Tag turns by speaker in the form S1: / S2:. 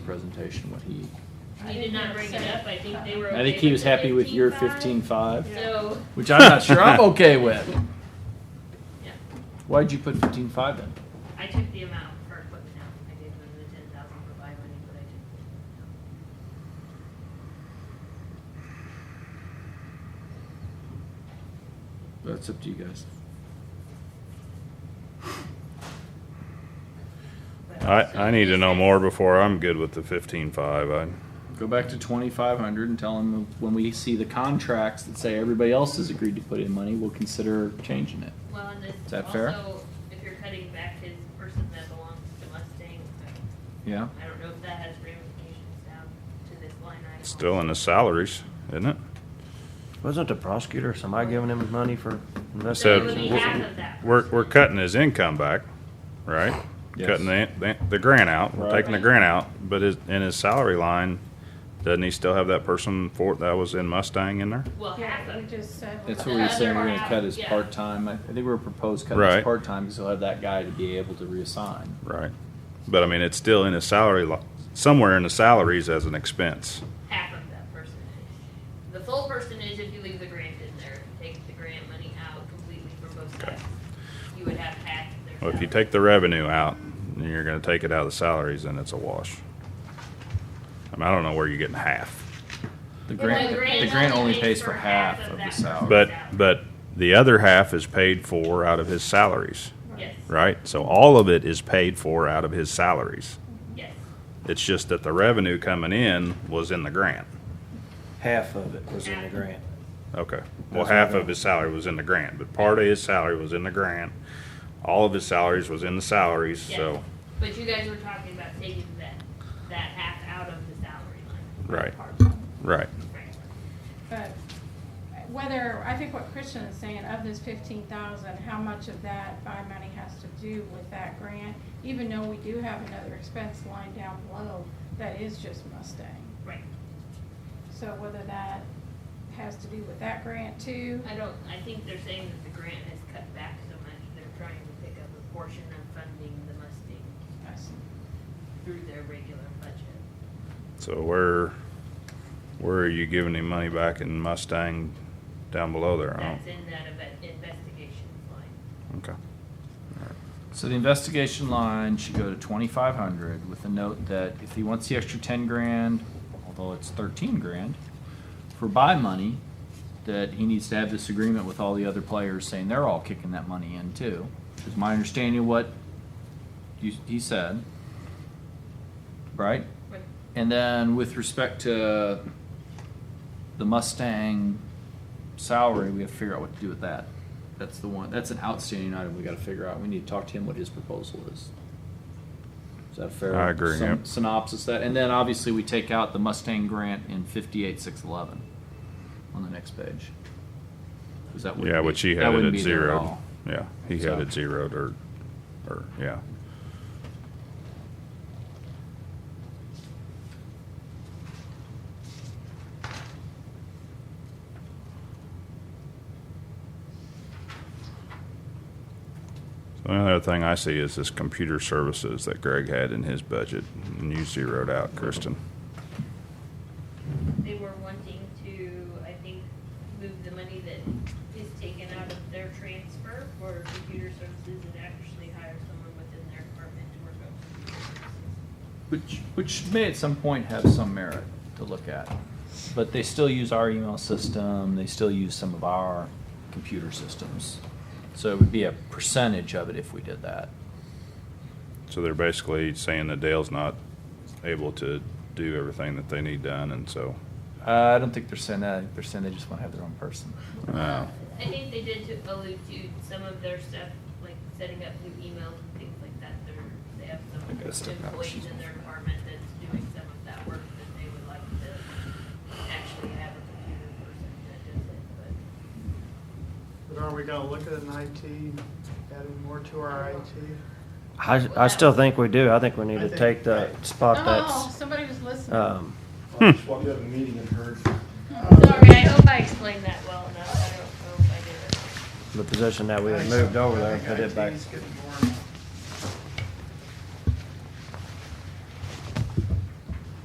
S1: presentation, what he,
S2: I did not bring it up, I think they were okay
S1: I think he was
S2: with the
S1: happy with your
S2: 15.5.
S1: fifteen-five,
S2: So,
S1: which I'm not sure I'm okay with.
S2: yeah,
S1: Why'd you put fifteen-five in?
S2: I took the amount for equipment out, I gave them the ten thousand for buy money, but I took.
S1: That's up to you guys.
S2: the amount.
S3: I, I need to know more before I'm good with the fifteen five. I,
S1: Go back to twenty-five hundred and tell him when we see the contracts that say everybody else has agreed to put in money, we'll consider changing it.
S2: Well, and this
S1: Is that fair?
S2: also, if you're cutting back his person that belongs to Mustang,
S1: Yeah?
S2: I don't know if that has ramifications down to this line item.
S3: still in the salaries, isn't it?
S4: Wasn't the prosecutor somebody giving him money for
S2: So it
S3: Said
S2: would be
S3: we're-
S4: investigation?
S2: half of that.
S3: We're, we're cutting his income back, right?
S1: Yes.
S3: Cutting the, the, the grant out, we're
S1: Right.
S3: taking the grant out, but his, in his salary line, doesn't he still have that person for, that was in Mustang in there?
S2: Well, half
S5: Yeah,
S2: of
S5: we
S2: it.
S5: just said.
S1: That's
S2: The
S1: what we were
S2: other
S1: saying, we're gonna
S2: half,
S1: cut his
S2: yeah.
S1: part-time, I I think we were proposed cutting
S3: Right.
S1: his part-time, because he'll have that guy to be able to reassign.
S3: Right. But I mean, it's still in his salary lo, somewhere in the salaries as an expense.
S2: half of that percentage. The full percentage, if you leave the grant in there, if you take the grant money out completely from both sides, you would have half of their.
S3: Well, if you
S2: salary.
S3: take the revenue out, and you're gonna take it out of the salaries, then it's a wash. I mean, I don't know where you're getting half.
S1: The
S2: Well,
S1: grant, the grant only pays for half of the
S2: that.
S1: salary.
S3: But, but the other half is paid for out of his salaries,
S2: Yes,
S3: right? So all of it is paid for out of his salaries.
S2: yes.
S3: It's just that the revenue coming in was in the grant.
S4: Half of it was in the grant.
S3: Okay. Well, half of his salary was in the grant, but part of his salary was in the grant. All of his salaries was in the salaries, so,
S2: Yes. But you guys were talking about taking that, that half out of the salary line.
S3: Right.
S2: Part.
S3: right.
S2: Right.
S5: But whether, I think what Christian is saying, of this fifteen thousand, how much of that buy money has to do with that grant? Even though we do have another expense line down below that is just Mustang.
S2: Right.
S5: So whether that has to do with that grant too,
S2: I don't, I think they're saying that the grant has cut back so much, they're trying to pick up a portion of funding the Mustang
S5: I see.
S2: through their regular budget.
S3: So where, where are you giving him money back in Mustang down below there? I
S2: That's in that eva- investigations line.
S3: don't, okay.
S1: So the investigation line should go to twenty-five hundred with a note that if he wants the extra ten grand, although it's thirteen grand, for buy money, that he needs to have this agreement with all the other players saying they're all kicking that money in too. Is my understanding of what you, he said. Right? And then with respect to the Mustang salary, we have to figure out what to do with that. That's the one, that's an outstanding item we gotta figure out. We need to talk to him what his proposal is. Is that a fair?
S3: I agree,
S1: syn-
S3: yep.
S1: Synopsis that, and then obviously we take out the Mustang grant in fifty-eight, six eleven on the next page. Is that? wouldn't
S3: Yeah,
S1: be-
S3: which he
S1: that
S3: had it
S1: wouldn't
S3: at
S1: be there at
S3: zero.
S1: all.
S3: Yeah, he had
S1: So-
S3: it zeroed or, or, yeah. So another thing I see is this computer services that Greg had in his budget and you zeroed out, Kristen.
S2: They were wanting to, I think, move the money that is taken out of their transfer for computer services and actually hire someone within their department to work on computer services.
S1: Which, which may at some point have some merit to look at. But they still use our email system, they still use some of our computer systems. So it would be a percentage of it if we did that.
S3: So they're basically saying that Dale's not able to do everything that they need done and so.
S1: Uh, I don't think they're saying that, I think they're saying they just wanna have their own person.
S3: uh,
S2: I think they did to allude to some of their stuff, like setting up new emails and things like that. They're, they have some
S1: I gotta step out.
S2: employees in their department that's doing some of that work that they would like to actually have a computer person that does it, but.
S6: But are we gonna look at an IT, adding more to our IT?
S4: I, I still think we do. I think we need
S6: I
S4: to
S6: think-
S4: take the spot
S5: Oh,
S4: that's,
S5: somebody was listening.
S4: um,
S7: I just walked out of a meeting and heard.
S2: Sorry, I hope I explained that well enough. I don't know if I did or not.
S4: the position that we had moved over there and put it back.
S6: I think IT's getting